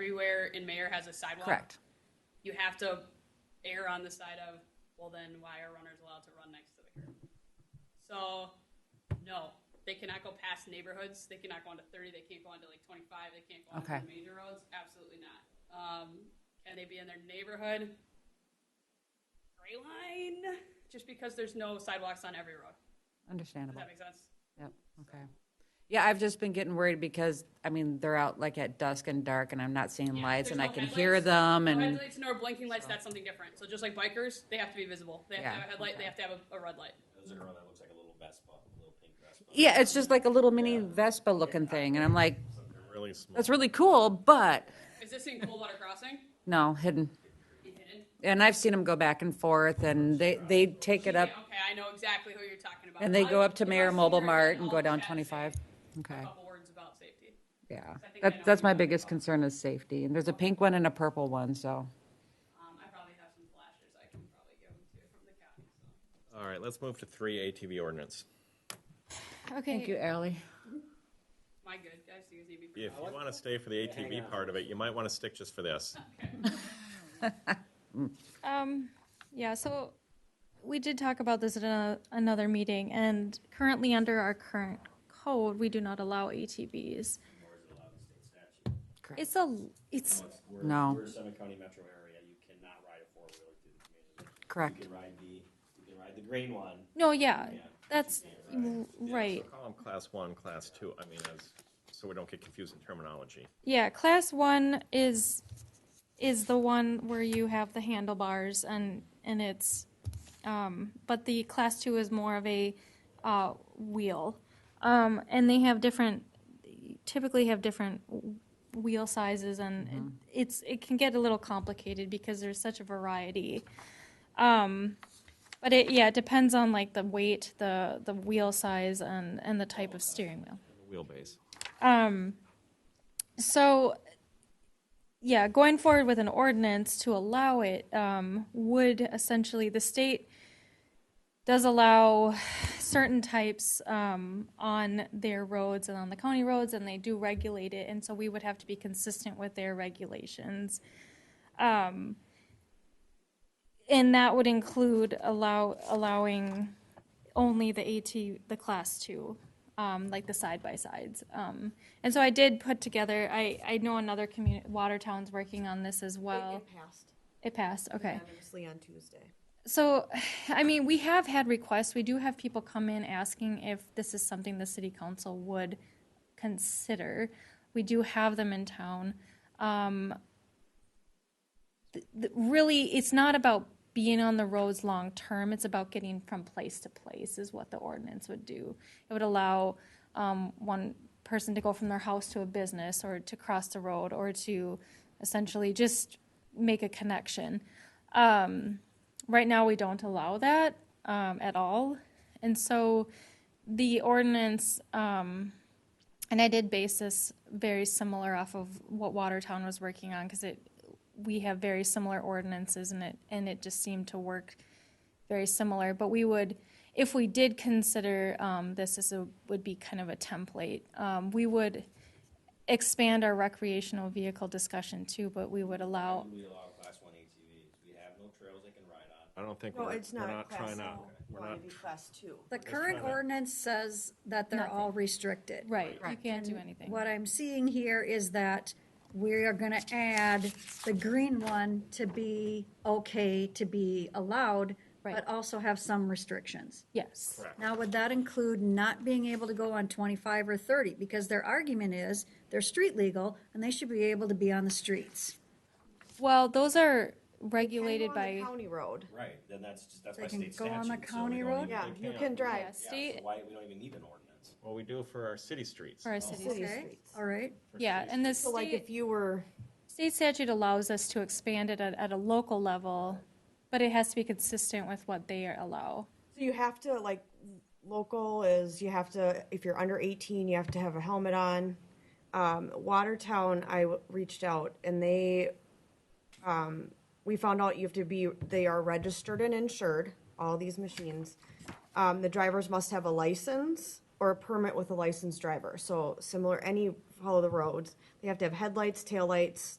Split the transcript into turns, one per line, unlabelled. everywhere in Mayor has a sidewalk.
Correct.
You have to err on the side of, well, then why are runners allowed to run next to the curb? So, no, they cannot go past neighborhoods. They cannot go into thirty. They can't go into like twenty-five. They can't go
Okay.
onto the major roads. Absolutely not. Um, can they be in their neighborhood? Gray line, just because there's no sidewalks on every road. Does
Understandable.
that make sense?
Yep, okay. Yeah, I've just been getting worried because, I mean, they're out like at dusk and dark and I'm not seeing
Yeah,
lights
there's
and I
no
can
headlights.
hear them
No
and,
headlights nor blinking lights, that's something different. So just like bikers, they have to be visible. They have
Yeah,
to have a headlight,
okay.
they have to have a, a red light.
There's a girl that looks like a little Vespa, a little pink Vespa.
yeah, it's just like a little mini Vespa looking thing. And I'm like,
Something really small.
that's really cool, but
Is this in Coldwater Crossing?
no, hidden. And I've seen them go back and forth and they, they take it
Yeah,
up
Okay, I know exactly who you're talking about.
and they go up to
I've-
Mayor
I've seen
Mobile
her
Mart
in
and
all
go
the
down
chat
25.
saying A
Okay,
couple words about safety.
yeah.
I think I know
That,
what
that's my
you're talking
biggest
about.
concern is safety. And there's a pink one and a purple one, so.
Um, I probably have some flashes I can probably give them to from the county, so.
All right, let's move to three ATV ordinance.
Thank you,
Okay,
Ally.
Am I good? Guys, do you guys need me? for-
If you want to stay for the ATV part of it, you might want to stick just for this.
um, yeah, so we did talk about this at a- another meeting, and currently under our current code, we do not allow ATVs. It's a, it's,
No.
We're Summit County metro area, you cannot ride a four-wheeler through the community.
Correct.
You can ride the, you can ride the green one.
no, yeah, that's, right.
Call them class one, class two, I mean, as, so we don't get confused in terminology.
Yeah, class one is, is the one where you have the handlebars and, and it's, um, but the class two is more of a, uh, wheel. Um, and they have different, typically have different w- wheel sizes and it's, it can get a little complicated because there's such a variety. Um, but it, yeah, it depends on like the weight, the, the wheel size and, and the type of steering wheel.
Wheelbase.
So, yeah, going forward with an ordinance to allow it um, would essentially, the state does allow certain types um, on their roads and on the county roads, and they do regulate it, and so we would have to be consistent with their regulations. Um, And that would include allow, allowing only the AT, the class two, um, like the side by sides. Um, and so I did put together. I, I know another community, Watertown's working on this as
It-
well.
It passed
It passed. Okay.
unanimously on Tuesday.
So, I mean, we have had requests. We do have people come in asking if this is something the city council would consider. We do have them in town. Um, th- th- really, it's not about being on the roads long term. It's about getting from place to place is what the ordinance would do. It would allow um, one person to go from their house to a business or to cross the road or to essentially just make a connection. Um, right now, we don't allow that um, at all. And so the ordinance, um, and I did base this very similar off of what Watertown was working on because it, we have very similar ordinances and it, and it just seemed to work very similar. But we would, if we did consider um, this as a, would be kind of a template, um, we would expand our recreational vehicle discussion too, but we would allow
We allow class one ATVs. We have no trails they can ride on.
I don't think
No,
we're,
it's
we're
not
not
class
trying to,
now.
we're
No,
not,
it'd be class two.
The current ordinance says that they're all restricted.
Right, you can't do
And
anything.
What I'm seeing here is that we are gonna add the green one to be okay, to be allowed,
Right.
but also have some restrictions.
Yes,
Now, would that include not being able to go on twenty-five or thirty? Because their argument is, they're street legal, and they should be able to be on the streets.
well, those are
Can go
regulated
on the
by,
County road.
Right, then that's just, that's
They
by
can
state
go
statute.
on the
so we
county
don't
road?
even-
Yeah,
they
you
can't.
can
yeah,
drive.
Yeah, so
state,
why, we don't even need an ordinance.
well, we do for our city streets.
for our cities.
City
Okay,
streets.
All right,
Yeah, and the
So like if
state,
you were,
state statute allows us to expand it at, at a local level, but it has to be consistent with what they allow.
so you have to like, local is, you have to, if you're under eighteen, you have to have a helmet on. Um, Watertown, I w- reached out and they, um, we found out you have to be, they are registered and insured, all these machines. Um, the drivers must have a license or a permit with a licensed driver, so similar, any, follow the roads. They have to have headlights, taillights,